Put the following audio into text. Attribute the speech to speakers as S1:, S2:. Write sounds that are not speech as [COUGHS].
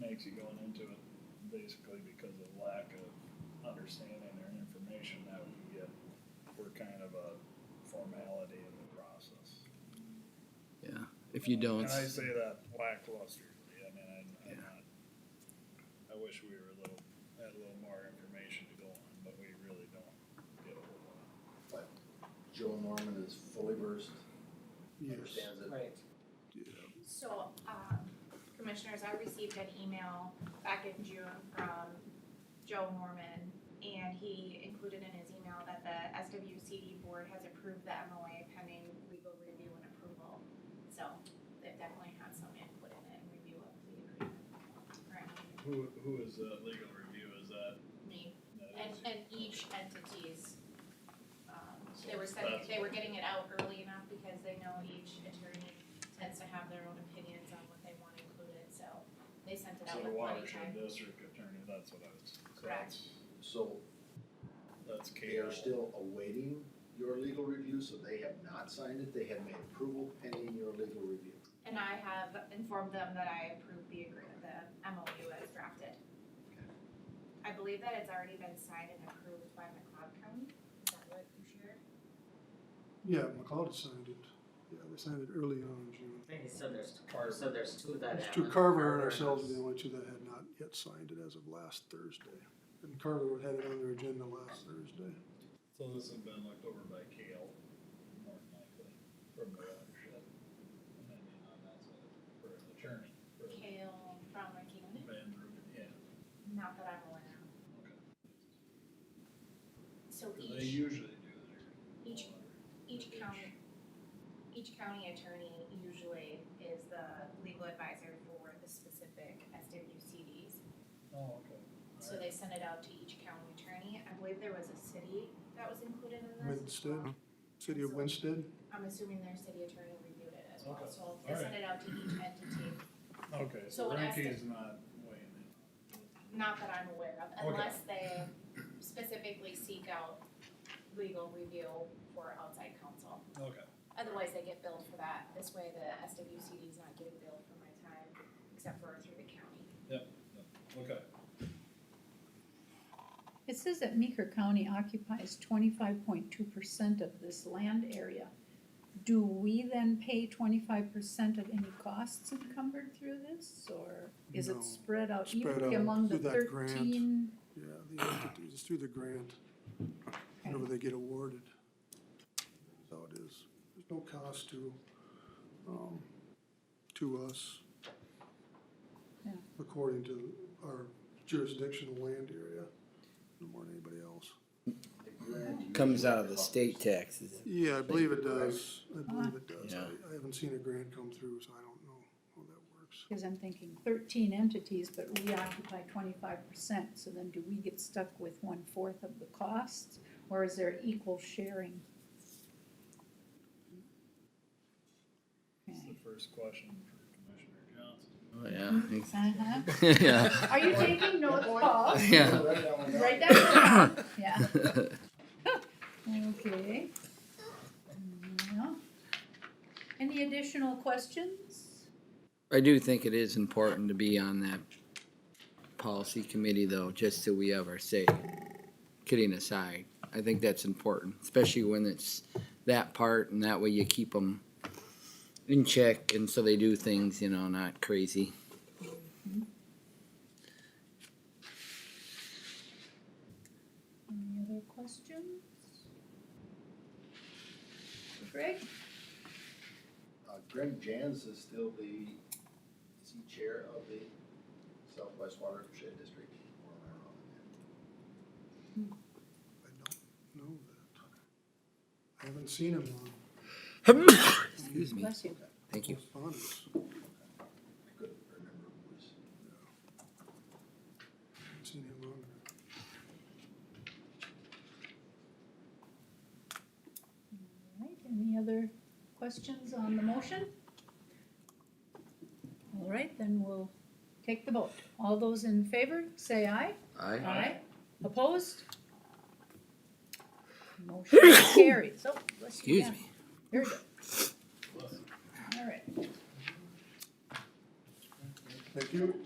S1: makes you going into it basically because of lack of understanding or information that we get. We're kind of a formality in the process.
S2: Yeah, if you don't,
S1: And I say that lacklusterly, I mean, I, I'm
S2: Yeah.
S1: not, I wish we were a little, had a little more information to go on, but we really don't get a whole lot.
S3: But Joe Norman is fully versed, understands it.
S4: Right.
S5: So, um, commissioners, I received an email back in June from Joe Norman, and he included in his email that the SWCD board has approved the MOA pending legal review and approval. So, they've definitely had some input in it and review of the agreement. Right,
S1: Who, who is that legal review, is that?
S5: me,
S1: that
S5: and,
S1: is-
S5: and each entity's, um, they were sending, they were getting it out early enough because they know each attorney tends to have their own opinions on what they want included, so they sent it
S1: So
S5: out
S1: the
S5: with plenty of
S1: watershed
S5: time.
S1: district attorney, that's what I was, so
S5: Correct.
S1: that's,
S3: So
S1: that's
S3: they
S1: Kale.
S3: are still awaiting your legal review, so they have not signed it. They have made approval pending your legal review.
S5: And I have informed them that I approve the agreement, the MOU as drafted. I believe that it's already been signed and approved by McLeod County, is that what you shared?
S6: Yeah, McLeod signed it. Yeah, they signed it early on in June.
S4: I think he said there's, Carver said there's two that
S6: It's
S4: have.
S6: two
S4: it.
S6: Carver and ourselves are the only two that had not yet signed it as of last Thursday. And Carver had it on their agenda last Thursday.
S1: So this has been looked over by Kale, more than likely, from the watershed. And then, you know, that's what, for an attorney, for
S5: Kale from McKeon,
S1: Van Ruben, yeah,
S5: not that I'm aware of.
S1: okay.
S5: So
S1: 'Cause They
S5: each,
S1: usually do their.
S5: each each county, each county attorney usually is the legal advisor for the specific SWCDs.
S1: Oh, okay.
S5: So they send it out to each county attorney. I believe there was a city that was included in this. as
S6: Winston.
S1: Uh-huh.
S5: well.
S6: City of Winston,
S5: I'm assuming their city attorney reviewed it as well,
S1: Okay.
S5: so they send it out to each entity,
S1: Okay,
S5: So
S1: so
S5: when I
S1: Renke
S5: said-
S1: is not weighing in.
S5: not that I'm aware of,
S1: Okay.
S5: unless they specifically seek out legal review for outside counsel.
S1: Okay.
S5: Otherwise, they get billed for that. This way, the SWCD is not getting billed for my time, except for through the county.
S1: Okay.
S7: It says that Meeker County occupies twenty-five point two percent of this land area. Do we then pay twenty-five percent of any costs encumbered through this, or is
S6: No.
S7: it spread out
S6: Spread
S7: evenly
S6: out
S7: among the
S6: through that grant.
S7: thirteen?
S6: yeah, the entities, it's through the grant, whenever they get awarded. That's how it is. There's no cost to, um, to us.
S7: Yeah.
S6: According to our jurisdictional land area, no more than anybody else.
S3: The grant usually
S2: comes out of the
S3: covers-
S2: state taxes.
S6: Yeah, I believe it does. I believe it does.
S2: Yeah.
S6: I, I haven't seen a grant come through, so I don't know how that works.
S7: Cause I'm thinking thirteen entities, but we occupy twenty-five percent, so then do we get stuck with one-fourth of the costs? Or is there equal sharing?
S1: It's
S7: Okay.
S1: the first question for Commissioner Johnson.
S2: Oh, yeah. [LAUGHS]
S7: Uh-huh.
S2: yeah.
S7: Are you taking notes, Paul?
S2: Yeah.
S3: Write that one down.
S7: Right down. Yeah. Okay. Yeah. Any additional questions?
S2: [LAUGHS] I do think it is important to be on that policy committee, though, just so we have our say. Kidding aside, I think that's important, especially when it's that part, and that way you keep them in check, and so they do things, you know, not crazy.
S7: Any other questions? Greg?
S3: Uh, Greg Jans is still the, is he chair of the Southwest Watershed District? Or am I wrong on that?
S6: I don't know that. I haven't seen him on
S2: Excuse me.
S7: Bless you.
S2: Thank you.
S6: correspondence.
S3: I couldn't remember who was.
S6: Haven't Seen him on there.
S7: All right, any other questions on the motion? All right, then we'll take the vote. All those in favor, say aye.
S2: Aye.
S7: Aye. Opposed? Motion
S2: [COUGHS]
S7: carries. So, bless you.
S2: Excuse
S7: yeah.
S2: me.
S7: Here we go. All right.
S6: Thank you.